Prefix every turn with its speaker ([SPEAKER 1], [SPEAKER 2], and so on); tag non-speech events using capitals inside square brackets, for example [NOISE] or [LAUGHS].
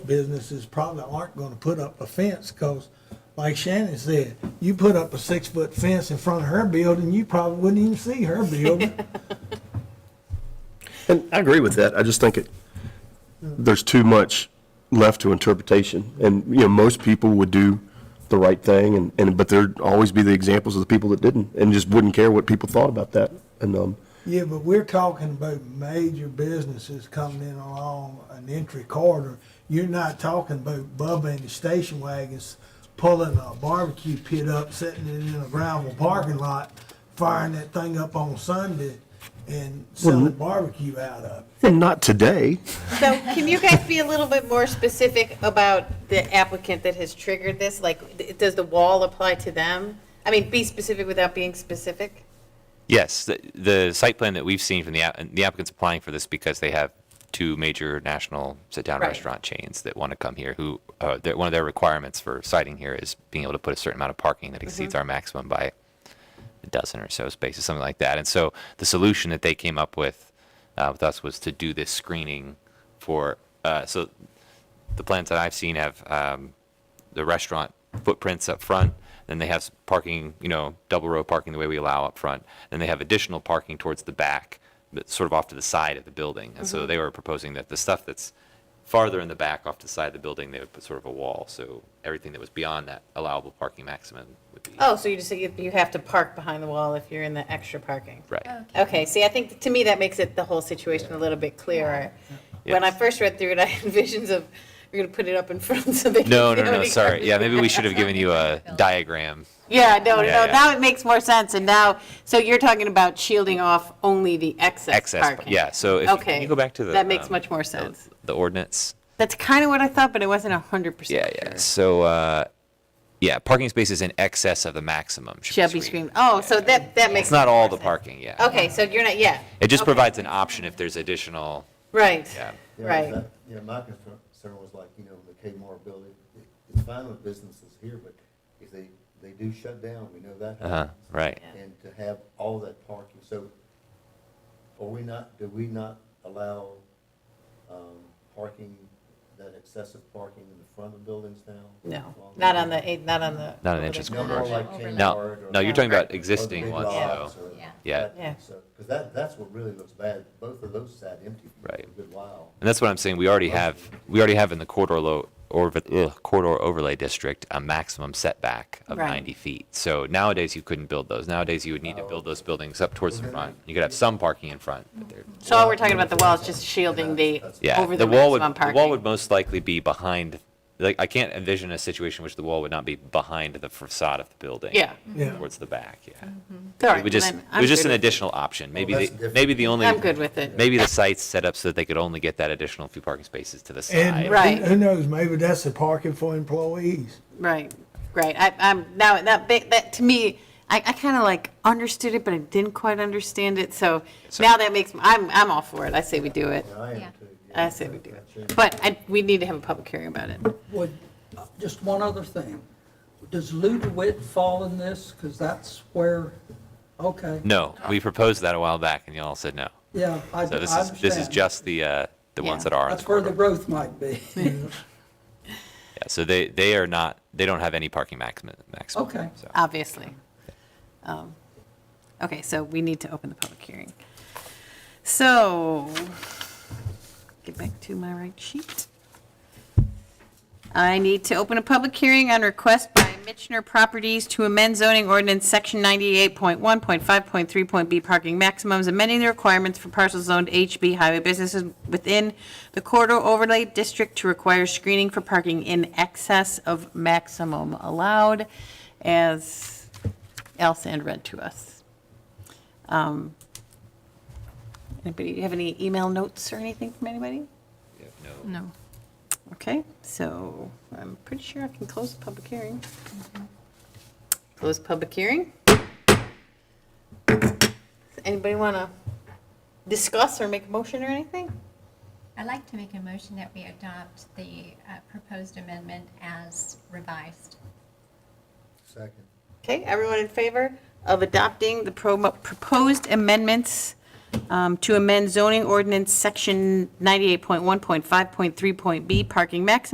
[SPEAKER 1] businesses probably aren't gonna put up a fence, cause like Shannon said, you put up a six-foot fence in front of her building, you probably wouldn't even see her building.
[SPEAKER 2] And I agree with that. I just think it, there's too much left to interpretation. And, you know, most people would do the right thing and, and, but there'd always be the examples of the people that didn't and just wouldn't care what people thought about that. And, um,
[SPEAKER 1] Yeah, but we're talking about major businesses coming in along an entry corridor. You're not talking about Bubba and the station wagons pulling a barbecue pit up, setting it in a gravel parking lot, firing that thing up on Sunday and selling barbecue out of it.
[SPEAKER 2] and not today.
[SPEAKER 3] So can you guys be a little bit more specific about the applicant that has triggered this? Like, th- does the wall apply to them? I mean, be specific without being specific?
[SPEAKER 4] Yes, the, the site plan that we've seen from the, app- and the applicant's applying for this because they have two major national sit-down
[SPEAKER 3] Right.
[SPEAKER 4] restaurant chains that want to come here, who, uh, their- one of their requirements for siting here is being able to put a certain amount of parking that exceeds our maximum by a dozen or so spaces, something like that. And so the solution that they came up with, uh, with us was to do this screening for, uh, so the plans that I've seen have, um, the restaurant footprints up front, then they have s- parking, you know, double row parking the way we allow up front, then they have additional parking towards the back, but sort of off to the side of the building.
[SPEAKER 3] Mm-hmm.
[SPEAKER 4] And so they were proposing that the stuff that's farther in the back off to the side of the building, they would put sort of a wall, so everything that was beyond that allowable parking maximum would be.
[SPEAKER 3] Oh, so you just say you- you have to park behind the wall if you're in the extra parking?
[SPEAKER 4] Right.
[SPEAKER 3] Okay, see, I think, to me, that makes it, the whole situation a little bit clearer. When I
[SPEAKER 4] Yes.
[SPEAKER 3] first read through it, [LAUGHS] I had visions of, you're going to put it up in front so they can.
[SPEAKER 4] No,
[SPEAKER 3] see
[SPEAKER 4] no,
[SPEAKER 3] how
[SPEAKER 4] no,
[SPEAKER 3] many
[SPEAKER 4] sorry.
[SPEAKER 3] cars-
[SPEAKER 4] Yeah, maybe we should have given
[SPEAKER 3] [LAUGHS]
[SPEAKER 4] you a diagram.
[SPEAKER 3] Yeah, no,
[SPEAKER 4] Yeah,
[SPEAKER 3] no,
[SPEAKER 4] yeah.
[SPEAKER 3] now it makes more sense, and now, so you're talking about shielding off only the excess
[SPEAKER 4] Excess,
[SPEAKER 3] parking?
[SPEAKER 4] yeah, so if,
[SPEAKER 3] Okay.
[SPEAKER 4] can you go back to the?
[SPEAKER 3] That makes
[SPEAKER 4] um,
[SPEAKER 3] much more
[SPEAKER 4] the-
[SPEAKER 3] sense.
[SPEAKER 4] The ordinance?
[SPEAKER 3] That's kind of what I thought, but it wasn't 100%.
[SPEAKER 4] Yeah, yeah.
[SPEAKER 3] sure.
[SPEAKER 4] So, uh, yeah, parking spaces in excess of the maximum
[SPEAKER 3] Shall be screened. Oh, so that, that makes.
[SPEAKER 4] It's not all
[SPEAKER 3] more
[SPEAKER 4] the
[SPEAKER 3] sense.
[SPEAKER 4] parking, yeah.
[SPEAKER 3] Okay, so you're not, yeah.
[SPEAKER 4] It just
[SPEAKER 3] okay.
[SPEAKER 4] provides an option if there's additional,
[SPEAKER 3] Right,
[SPEAKER 4] yeah.
[SPEAKER 5] Yeah,
[SPEAKER 3] Right.
[SPEAKER 5] that- Yeah, my concern concern was like, you know, the Kmart building, it- it's fine with businesses here, but if they, they do shut down, we know that
[SPEAKER 4] Uh-huh,
[SPEAKER 5] happens.
[SPEAKER 4] right.
[SPEAKER 5] And to have all that parking, so are we not, do we not allow, um, parking, that excessive parking in the front of buildings now?
[SPEAKER 3] no,
[SPEAKER 5] Along
[SPEAKER 3] not on the, eight- not on the.
[SPEAKER 4] Not an entrance
[SPEAKER 5] No
[SPEAKER 4] corridor.
[SPEAKER 5] more like
[SPEAKER 6] Overlay.
[SPEAKER 5] Kmart.
[SPEAKER 4] No,
[SPEAKER 5] or-
[SPEAKER 4] no, you're talking
[SPEAKER 5] or
[SPEAKER 4] about
[SPEAKER 5] the
[SPEAKER 4] existing
[SPEAKER 5] big
[SPEAKER 4] ones,
[SPEAKER 5] lots
[SPEAKER 4] though.
[SPEAKER 5] or
[SPEAKER 6] Yeah.
[SPEAKER 4] Yeah.
[SPEAKER 5] that-
[SPEAKER 3] Yeah.
[SPEAKER 5] So, because that, that's what really looks bad. Both of those sat empty for a
[SPEAKER 4] Right.
[SPEAKER 5] good while.
[SPEAKER 4] And that's what I'm saying, we already have, we already have in the corridor lo, or, ugh, corridor overlay district, a maximum setback of
[SPEAKER 3] Right.
[SPEAKER 4] 90 feet. So nowadays, you couldn't build those. Nowadays, you would
[SPEAKER 5] Oh.
[SPEAKER 4] need to build those buildings up towards the
[SPEAKER 5] Well, then-
[SPEAKER 4] front. You could have some parking in front, but they're
[SPEAKER 3] So all we're talking about the wall is just shielding the,
[SPEAKER 4] Yeah,
[SPEAKER 3] over the
[SPEAKER 4] the wall would,
[SPEAKER 3] maximum
[SPEAKER 4] the
[SPEAKER 3] parking.
[SPEAKER 4] wall would most likely be behind, like, I can't envision a situation which the wall would not be behind the facade of the building.
[SPEAKER 3] Yeah.
[SPEAKER 1] Yeah.
[SPEAKER 4] Towards the back, yeah.
[SPEAKER 3] All
[SPEAKER 4] It
[SPEAKER 3] right,
[SPEAKER 4] would just,
[SPEAKER 3] then
[SPEAKER 4] it
[SPEAKER 3] I'm
[SPEAKER 4] was just
[SPEAKER 3] good
[SPEAKER 4] an
[SPEAKER 3] with it.
[SPEAKER 4] additional option. Maybe,
[SPEAKER 5] that's
[SPEAKER 4] the-
[SPEAKER 5] different.
[SPEAKER 4] maybe the only.
[SPEAKER 3] I'm good with it.
[SPEAKER 4] Maybe the site's set up so that they could only get that additional few parking spaces to the
[SPEAKER 1] And
[SPEAKER 4] side.
[SPEAKER 3] Right.
[SPEAKER 1] who- who knows, maybe that's the parking for employees.
[SPEAKER 3] Right, right. I, I'm, now, that, big- that, to me, I, I kind of like understood it, but I didn't quite understand it, so
[SPEAKER 4] So-
[SPEAKER 3] now that makes, I'm, I'm all for it. I say we do it.
[SPEAKER 5] Yeah, I
[SPEAKER 6] Yeah.
[SPEAKER 5] am too. yeah.
[SPEAKER 3] I say we do it. But I, we need to have a public hearing about it.
[SPEAKER 7] Would, uh, just one other thing. Does Ludwig fall in this? Because that's where, okay,
[SPEAKER 4] No, we proposed that a while back and y'all said no.
[SPEAKER 7] yeah, I I
[SPEAKER 4] So
[SPEAKER 7] understand.
[SPEAKER 4] this is, this is just the, uh, the ones
[SPEAKER 3] Yeah.
[SPEAKER 4] that are on the
[SPEAKER 7] That's where the
[SPEAKER 4] corridor.
[SPEAKER 7] growth might be. [LAUGHS]
[SPEAKER 4] Yeah, so they, they are not, they don't have any parking maximum, maximum.
[SPEAKER 7] Okay.
[SPEAKER 4] so.
[SPEAKER 3] obviously. Um, Okay, so we need to open the public hearing. So, get back to my right sheet. I need to open a public hearing on request by Mitchner Properties to amend zoning ordinance section 98.1.5.3.b parking maximums, amending the requirements for parcels zoned HB highway businesses within the corridor overlay district to require screening for parking in excess of maximum allowed, as Alsand read to us. Um, Anybody, have any email notes or anything from anybody?
[SPEAKER 4] Yeah, no.
[SPEAKER 6] No.
[SPEAKER 3] Okay, so I'm pretty sure I can close the public hearing. Close public hearing? Anybody want to discuss or make a motion or anything?
[SPEAKER 6] I'd like to make a motion that we adopt the uh, proposed amendment as revised.
[SPEAKER 5] Second.
[SPEAKER 3] Okay, everyone in favor of adopting the pro- proposed amendments um, to amend zoning ordinance section 98.1.5.3.b parking maximum